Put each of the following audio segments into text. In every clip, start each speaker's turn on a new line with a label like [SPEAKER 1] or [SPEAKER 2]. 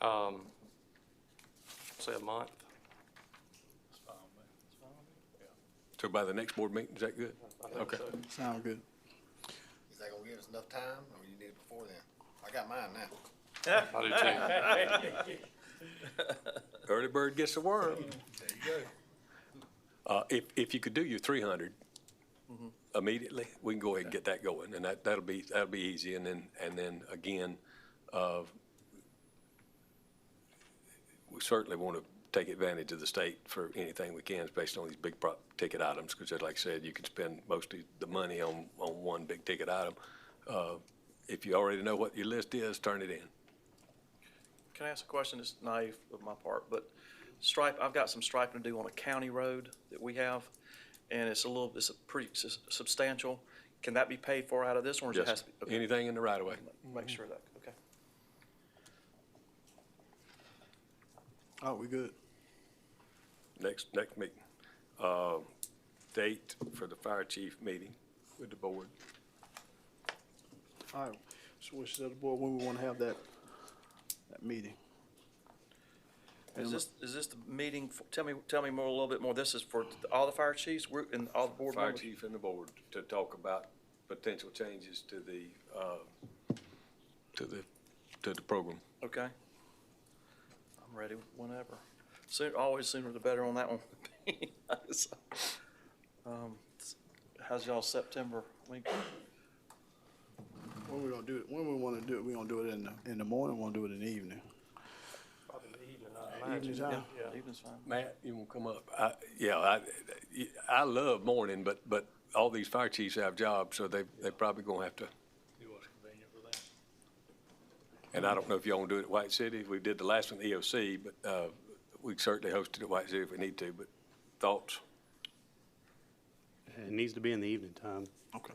[SPEAKER 1] um, say a month.
[SPEAKER 2] So by the next board meeting, is that good?
[SPEAKER 1] I think
[SPEAKER 2] Okay.
[SPEAKER 1] so.
[SPEAKER 3] Sound good.
[SPEAKER 4] Is that gonna give us enough time, or you need it before then? I got mine now.
[SPEAKER 1] I do too.
[SPEAKER 2] Early bird gets the worm.
[SPEAKER 4] There you go.
[SPEAKER 2] Uh, if, if you could do your three hundred
[SPEAKER 4] Mm-hmm.
[SPEAKER 2] immediately, we can go ahead and get that going, and that, that'll be, that'll be easy, and then, and then again, uh, we certainly want to take advantage of the state for anything we can, especially on these big prop ticket items, because like I said, you can spend most of the money on, on one big ticket item. Uh, if you already know what your list is, turn it in.
[SPEAKER 5] Can I ask a question? It's naive of my part, but stripe, I've got some striping to do on a county road that we have, and it's a little, it's a pretty sus- substantial. Can that be paid for out of this one, or does it has
[SPEAKER 2] Yes,
[SPEAKER 5] to be? okay,
[SPEAKER 2] anything in the right of way.
[SPEAKER 5] Make sure that, okay.
[SPEAKER 3] Oh, we good.
[SPEAKER 2] next, next meeting. Uh, Date for the fire chief meeting with the board.
[SPEAKER 3] All right. So we should set the board when we want to have that, that meeting.
[SPEAKER 5] Is this, is this the meeting, for- tell me, tell me more, a little bit more. This is for all the fire chiefs, we're, and all the board
[SPEAKER 2] Fire
[SPEAKER 5] members?
[SPEAKER 2] chief and the board to talk about potential changes to the, uh, to the, to the program.
[SPEAKER 5] Okay. I'm ready whenever. Soon, always sooner the better on that one. So, um, How's y'all September? We-
[SPEAKER 3] When we gonna do it, when we want to do it, we gonna do it in the, in the morning, we'll do it in the evening.
[SPEAKER 1] Probably the evening, I imagine.
[SPEAKER 3] Evening time.
[SPEAKER 1] Yeah.
[SPEAKER 5] Evening's fine.
[SPEAKER 2] Matt, you want to come up? I, yeah, I, I love morning, but, but all these fire chiefs have jobs, so they, they probably gonna have to. And I don't know if y'all want to do it at White City. We did the last one, at EOC, but, uh, we certainly hosted at White City if we need to, but thoughts?
[SPEAKER 6] It needs to be in the evening time.
[SPEAKER 3] Okay.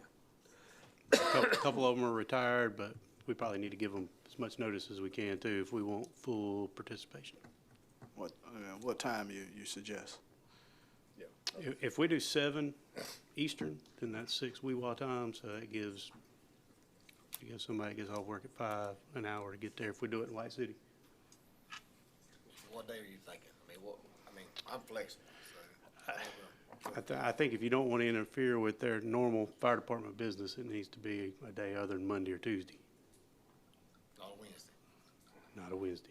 [SPEAKER 6] A Couple of them are retired, but we probably need to give them as much notice as we can too, if we want full participation.
[SPEAKER 3] What, uh, what time you, you suggest?
[SPEAKER 6] If, if we do seven Eastern, then that's six WeWa time, so that gives, it gives somebody that gets off work at five, an hour to get there if we do it in White City.
[SPEAKER 4] What day are you thinking? I mean, what, I mean, I'm flexible, so.
[SPEAKER 6] I, th- I think if you don't want to interfere with their normal fire department business, it needs to be a day other than Monday or Tuesday,
[SPEAKER 4] On Wednesday.
[SPEAKER 6] not a Wednesday.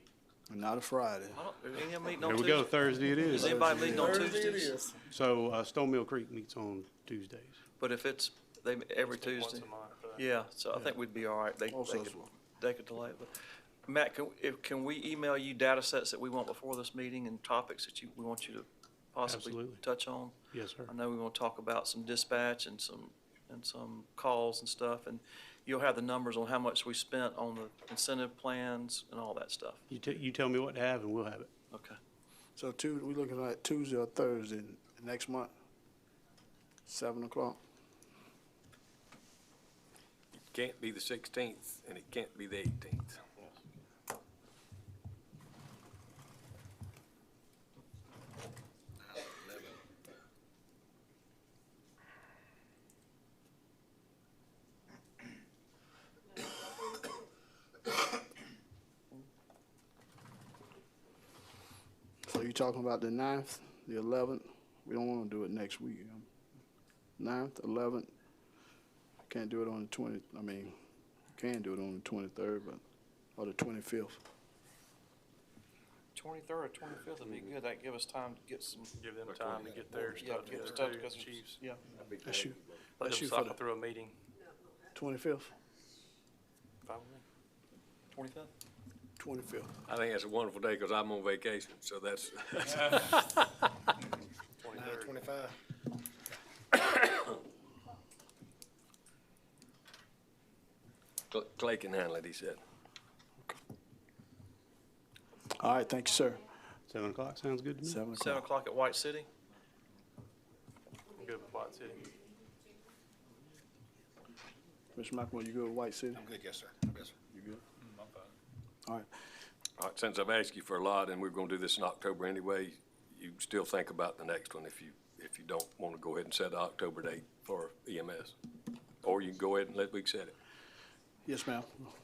[SPEAKER 3] Not a Friday.
[SPEAKER 5] I don't, is any of them meeting on
[SPEAKER 6] Here we
[SPEAKER 5] Tuesday?
[SPEAKER 6] go, Thursday it
[SPEAKER 5] Is
[SPEAKER 6] is.
[SPEAKER 5] anybody meeting on Tuesdays?
[SPEAKER 6] So, uh, Stone Mill Creek meets on Tuesdays.
[SPEAKER 5] But if it's, they, every Tuesday,
[SPEAKER 1] Once a month. uh,
[SPEAKER 5] yeah, so I think we'd be all right. They, they
[SPEAKER 3] Also,
[SPEAKER 5] could, they could delay it, but, Matt, can, if, can we email you data sets that we want before this meeting and topics that you, we want you to possibly
[SPEAKER 6] Absolutely.
[SPEAKER 5] touch on?
[SPEAKER 6] Yes, sir.
[SPEAKER 5] I know we want to talk about some dispatch and some, and some calls and stuff, and you'll have the numbers on how much we spent on the incentive plans and all that stuff.
[SPEAKER 6] You, t- you tell me what to have and we'll have it.
[SPEAKER 5] Okay.
[SPEAKER 3] so two, we looking at Tuesday or Thursday next month? Seven o'clock?
[SPEAKER 2] It can't be the sixteenth and it can't be the eighteenth.
[SPEAKER 3] So you talking about the ninth, the eleventh? We don't wanna do it next week. Ninth, eleventh, can't do it on the twenty, I mean, can do it on the twenty-third, but, or the twenty-fifth.
[SPEAKER 5] Twenty-third or twenty-fifth would be good. That'd give us time to get some,
[SPEAKER 1] Give them time to get their
[SPEAKER 5] yeah,
[SPEAKER 1] stuff
[SPEAKER 5] get
[SPEAKER 1] together,
[SPEAKER 5] stuff
[SPEAKER 1] too,
[SPEAKER 5] because,
[SPEAKER 1] chiefs.
[SPEAKER 5] yeah.
[SPEAKER 3] That's you,
[SPEAKER 1] Let
[SPEAKER 3] that's
[SPEAKER 1] them
[SPEAKER 3] you for
[SPEAKER 1] cycle
[SPEAKER 3] the
[SPEAKER 1] through a meeting.
[SPEAKER 3] twenty-fifth?
[SPEAKER 5] Twenty-fifth?
[SPEAKER 3] Twenty-fifth.
[SPEAKER 2] I think that's a wonderful day because I'm on vacation, so that's,
[SPEAKER 4] Nine twenty-five.
[SPEAKER 2] Clay can handle it, he said.
[SPEAKER 3] All right, thank you, sir.
[SPEAKER 6] Seven o'clock sounds good to me.
[SPEAKER 3] Seven
[SPEAKER 5] Seven
[SPEAKER 3] o'clock.
[SPEAKER 5] o'clock at White City?
[SPEAKER 1] Good with White City.
[SPEAKER 3] Mr. McElroy, you go to White City?
[SPEAKER 4] I'm good, yes, sir. Yes, sir.
[SPEAKER 3] You good? All right,
[SPEAKER 2] All right, since I've asked you for a lot and we're going to do this in October anyway, you still think about the next one if you, if you don't want to go ahead and set the E October date for EMS. Or you can go ahead and let, we can set it.
[SPEAKER 3] yes, ma'am.